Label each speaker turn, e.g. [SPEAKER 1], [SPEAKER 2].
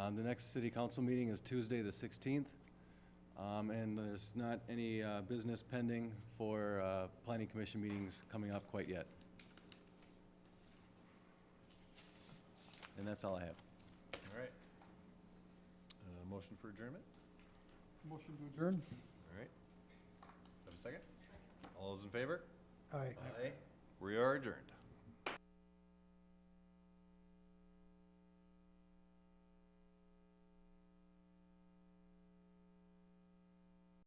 [SPEAKER 1] Um, The next city council meeting is Tuesday, the 16th, Um, and there's not any uh, business pending for uh, planning commission meetings coming up quite yet. And that's all I have.
[SPEAKER 2] All right. Uh, Motion for adjournment?
[SPEAKER 3] Motion to adjourn?
[SPEAKER 2] All right. Have a second? All those in favor?
[SPEAKER 3] Aye.
[SPEAKER 2] Aye. We are adjourned.